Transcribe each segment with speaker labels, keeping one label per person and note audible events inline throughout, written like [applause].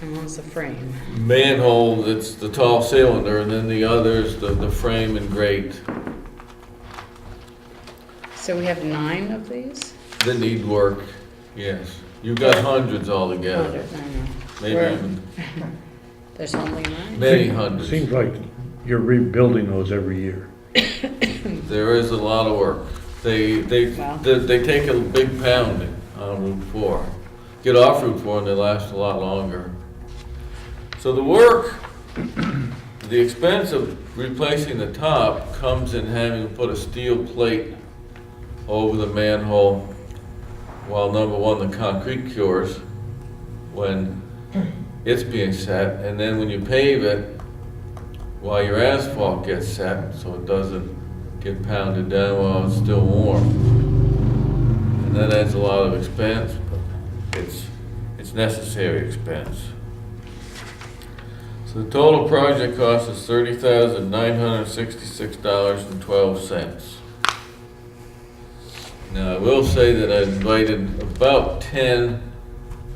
Speaker 1: And one's the frame.
Speaker 2: manhole that's the tall cylinder, and then the other's the, the frame and grate
Speaker 1: So we have nine of these?
Speaker 2: that need work, yes. You've got hundreds altogether,
Speaker 1: Hundred, I know.
Speaker 2: maybe
Speaker 1: We're-
Speaker 2: even,
Speaker 1: There's only nine?
Speaker 2: many
Speaker 3: Seems
Speaker 2: hundreds.
Speaker 3: like you're rebuilding those every year.
Speaker 2: There is a lot of work. They, they,
Speaker 1: Wow.
Speaker 2: they they take a big pounding on Route 4. Get off Route 4 and they last a lot longer. So the work, the expense of replacing the top comes in having to put a steel plate over the manhole while number one, the concrete cures when it's being set, and then when you pave it, while your asphalt gets set, so it doesn't get pounded down while it's still warm. And that adds a lot of expense, but it's, it's necessary expense. So the total project cost is thirty thousand nine hundred sixty-six dollars and twelve cents. Now, I will say that I invited about ten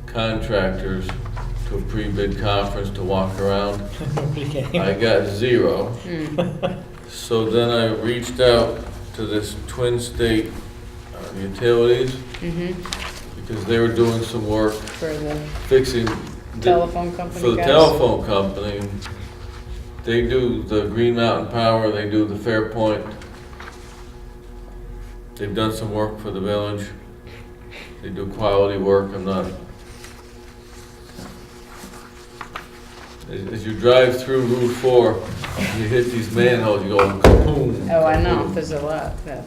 Speaker 2: contractors to a pre-bid conference to walk around. I got zero.
Speaker 1: Hmm.
Speaker 2: So then I reached out to this Twin State uh, Utilities
Speaker 1: Mm-hmm,
Speaker 2: because they were doing some work
Speaker 1: for the
Speaker 2: fixing. the-
Speaker 1: telephone company guys?
Speaker 2: For the telephone company. They do the Green Mountain Power, they do the Fairpoint. They've done some work for the village. They do quality work, I'm not. As, as you drive through Route Four, you hit these manholes, you go kaboom.
Speaker 1: Oh, I know,
Speaker 2: kaboom.
Speaker 1: there's a lot, yeah.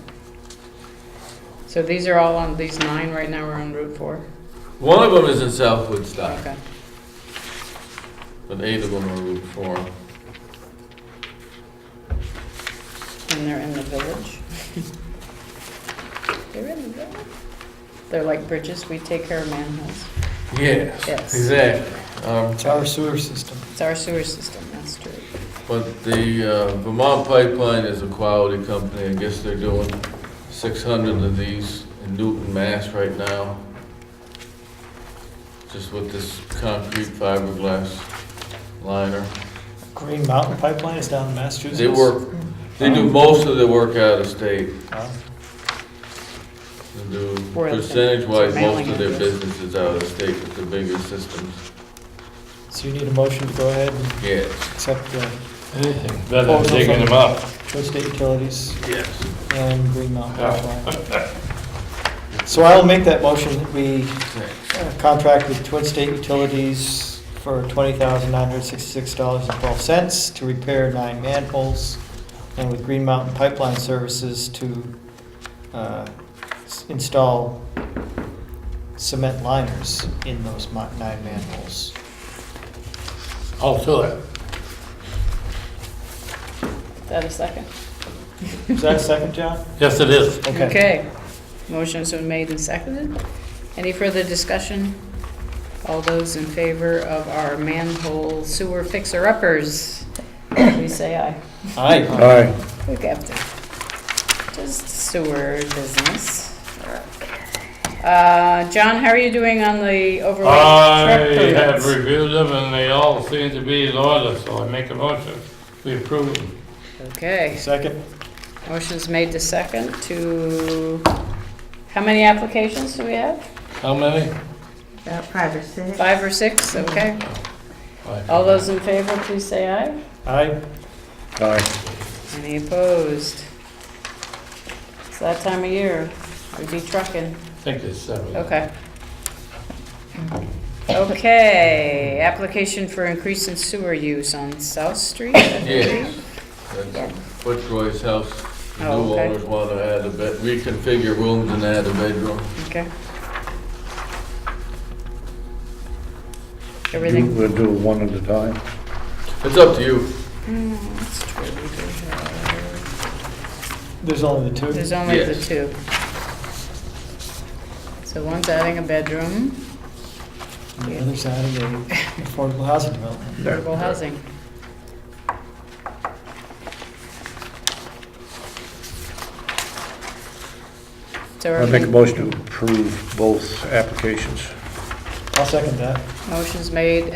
Speaker 1: So these are all on, these nine right now are on Route Four?
Speaker 2: One of them is in South Woodstock.
Speaker 1: Okay.
Speaker 2: But eight of them are Route Four.
Speaker 1: And they're in the village? [laughs] They're in the village? They're like bridges, we take care of manholes.
Speaker 2: Yes,
Speaker 1: Yes.
Speaker 2: exactly. Um,
Speaker 4: It's our sewer system.
Speaker 1: It's our sewer system, that's true.
Speaker 2: But the uh, Vermont Pipeline is a quality company. I guess they're doing 600 of these in Newton, Mass right now. Just with this concrete fiberglass liner.
Speaker 4: Green Mountain Pipeline is down in Massachusetts.
Speaker 2: They work, they
Speaker 1: Um,
Speaker 2: do most of their work out of state.
Speaker 4: Wow.
Speaker 2: They do
Speaker 1: Royalton.
Speaker 2: percentage-wise, most
Speaker 1: Mailing
Speaker 2: of their
Speaker 1: address.
Speaker 2: business is out of state with the bigger systems.
Speaker 4: So you need a motion to go ahead and
Speaker 2: Yes.
Speaker 4: accept the
Speaker 5: Anything, better than digging them up.
Speaker 4: Tri-State Utilities
Speaker 2: Yes.
Speaker 4: and Green Mountain Pipeline.
Speaker 5: [laughs]
Speaker 4: So I'll make that motion that we uh, contract with Twin State Utilities for $20,966.12 to repair nine manholes, and with Green Mountain Pipeline Services to uh, s- install cement liners in those mo- nine manholes.
Speaker 5: I'll fill Oh, it.
Speaker 1: Is that a second?
Speaker 4: Is that a second, John?
Speaker 5: Yes, it is.
Speaker 1: Okay. Motion's been made and seconded. Any further discussion? All those in favor of our manhole sewer fixer-uppers, please say aye.
Speaker 4: Aye.
Speaker 3: Aye.
Speaker 1: Look after. Just sewer business. Uh, John, how are you doing on the overall
Speaker 5: I
Speaker 1: truck
Speaker 5: have
Speaker 1: permits?
Speaker 5: reviewed them and they all seem to be in order, so I make a motion. We approve them.
Speaker 1: Okay,
Speaker 4: Second?
Speaker 1: motion's made to second to, how many applications do we have?
Speaker 5: How many?
Speaker 6: About five or six.
Speaker 1: Five or six, okay.
Speaker 5: Five.
Speaker 1: All those in favor, please say aye.
Speaker 4: Aye.
Speaker 3: Aye.
Speaker 1: Any opposed? It's that time of year, we'd be trucking.
Speaker 5: I think there's seven.
Speaker 1: Okay. Okay, application for increase in sewer use on South Street? I think it
Speaker 2: Yes,
Speaker 1: is.
Speaker 2: that's what Roy's house, the
Speaker 1: Oh,
Speaker 2: new
Speaker 1: okay.
Speaker 2: owners want to add a bed, reconfigure rooms and add a bedroom.
Speaker 1: Okay.
Speaker 3: You
Speaker 1: Everything,
Speaker 3: will do one at a time.
Speaker 2: It's up to you.
Speaker 1: Mm, that's true, we do have-
Speaker 4: There's only the two.
Speaker 1: there's only the
Speaker 2: Yes.
Speaker 1: two. So one's adding a bedroom,
Speaker 4: On the other side of the affordable housing development.
Speaker 1: affordable housing. So are
Speaker 3: I make a
Speaker 1: we-
Speaker 3: motion to approve both applications.
Speaker 4: I'll second that.
Speaker 1: motion's made